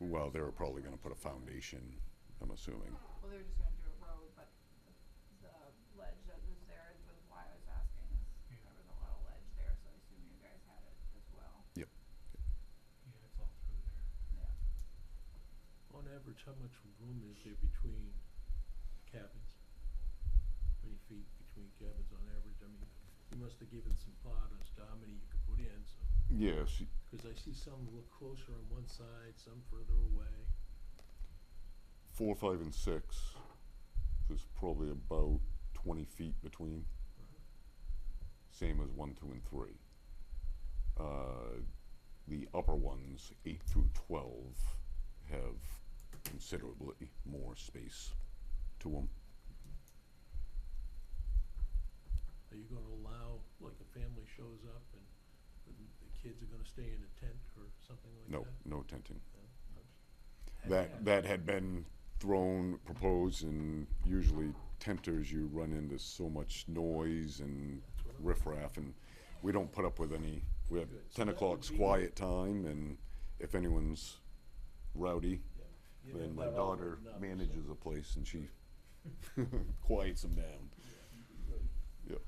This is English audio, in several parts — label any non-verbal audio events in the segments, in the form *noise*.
well, they were probably gonna put a foundation, I'm assuming. Well, they were just gonna do a road, but the ledge that was there is was why I was asking is there was a lot of ledge there, so I assume you guys had it as well. Yep. Yeah, it's all through there. Yeah. On average, how much room is there between cabins? How Many feet between cabins on average? I mean, you must have given some thought as to how many you could put in, so. Yes, Cause I see some look closer on one side, some further away. four, five, and six, there's probably about twenty feet between. Same as one, two, and three. Uh, the upper ones, eight through twelve, have considerably more space to them. Are you gonna allow, like, a family shows up and the, the kids are gonna stay in a tent or something like No, that? no tenting. No. That, that had been thrown, proposed, and usually tenters, you run into so much noise and That's what I'm- riffraff, and we don't put up with any, we have Good. So ten that would o'clock's be- quiet time, and if anyone's rowdy, Yeah. You then don't my let all of daughter them know, so- manages the place and *laughs* she quiets them down. Yep,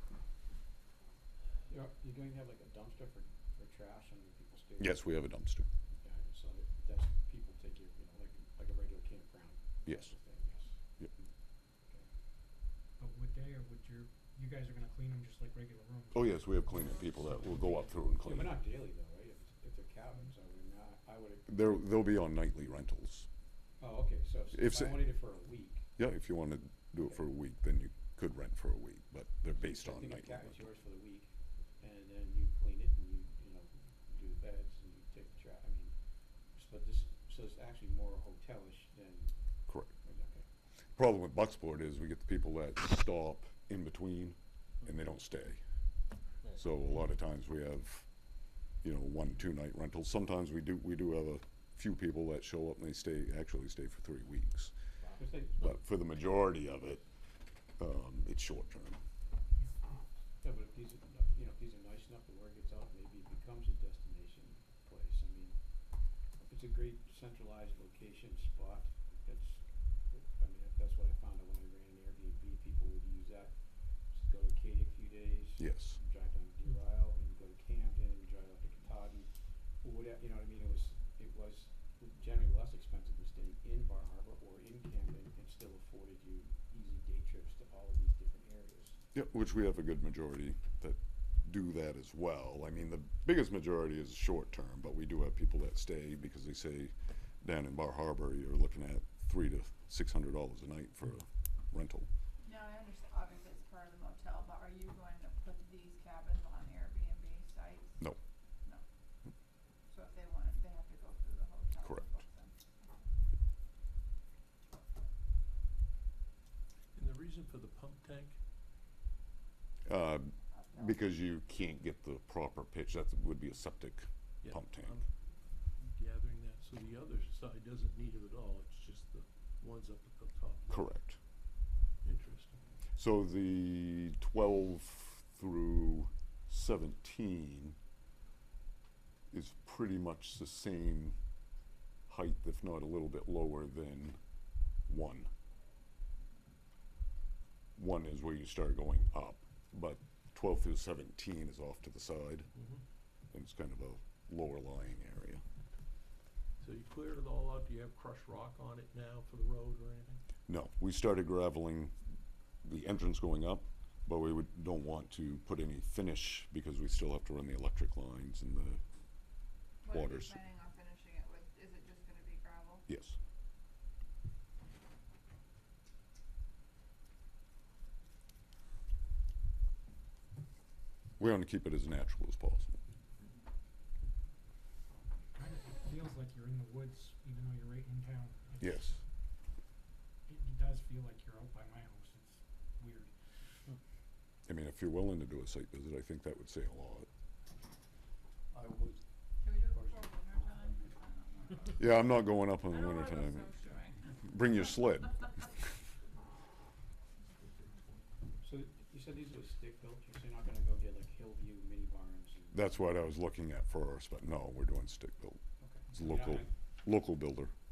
You're, you're going to have like a dumpster for, for trash and people's stay? yes, we have a dumpster, Yeah, so that, that's, people take your, you know, like, like a regular campground. yes. sort of thing, yes. Hmm. Yep. Okay. But would they or would your, you guys are gonna clean them just like regular rooms? Oh, yes, we have cleaning people that will go up through and Yeah, clean but it. not daily though, right? If, if they're cabins, I would not, I would, They're, they'll be on nightly rentals. oh, okay, so If if so- I wanted it for a week. Yeah, if you want to do it for a week, then you could rent for a week, but they're based on I think a nightly. cat is yours for the week, and then you clean it and you, you know, do the beds and you take the trash, I mean, s- but this, so it's actually more hotelish than, Correct. okay. Problem with Bucksport is we get the people that stop in between and they don't stay. So a lot of times we have, you know, one, two night rentals. Sometimes we do, we do have a few people that show up and they stay, actually stay for three weeks. 'Cause they, But for the majority of it, um, it's short term. Yeah, but if these are, no- you know, if these are nice enough, the word gets out, maybe it becomes a destination place. I mean, it's a great centralized location spot. It's, I mean, that- that's what I found out when I ran an Airbnb, people would use that. Just go to Acadia a few days. Yes, Drive down to Deer Isle and go to Camden and drive up to Katahdin. Or whatever, you know what I mean? It was, it was generally less expensive than staying in Bar Harbor or in Camden and still afforded you easy day trips to all of these different areas. yeah, which we have a good majority that do that as well. I mean, the biggest majority is short term, but we do have people that stay because they say down in Bar Harbor, you're looking at three to six hundred dollars a night for a rental. Now, I understand, obviously it's part of the motel, but are you going to put these cabins on Airbnb sites? No. No. So if they want it, they have to go through the hotel. to Correct. book them. And the reason for the pump tank, Uh, Up there. because you can't get the proper pitch, that would be a septic yeah. pump tank. I'm Gathering that, so the other side doesn't need it at all, it's just the ones up at the top. Correct. Interesting. So the twelve through seventeen is pretty much the same height, if not a little bit lower than one. One is where you start going up, but twelve through seventeen is off to the side, and it's kind of a lower lying area. So you cleared it all out, do you have crushed rock on it now for the road or anything? No, we started graveling the entrance going up, but we would, don't want to put any finish because we still have to run the electric lines and the, What are you waters. planning on finishing it with? Is it just gonna be gravel? yes. We want to keep it as natural as possible. Kind of, it feels like you're in the woods, even though you're right in town. It's- Yes, It, it does feel like you're out by my house, it's weird. I mean, if you're willing to do a site visit, I think that would say a lot. I would Should we do it Or is before winter time? Yeah, I'm not going up I in the don't wanna- winter I don't time. wanna go snowshoeing. Bring your sled. *laughs* So you said these were stick built, you're saying not gonna go get like Hillview mini barns and? That's what I was looking at first, but no, we're doing stick built. Okay. It's I mean, I- local, I- local builder.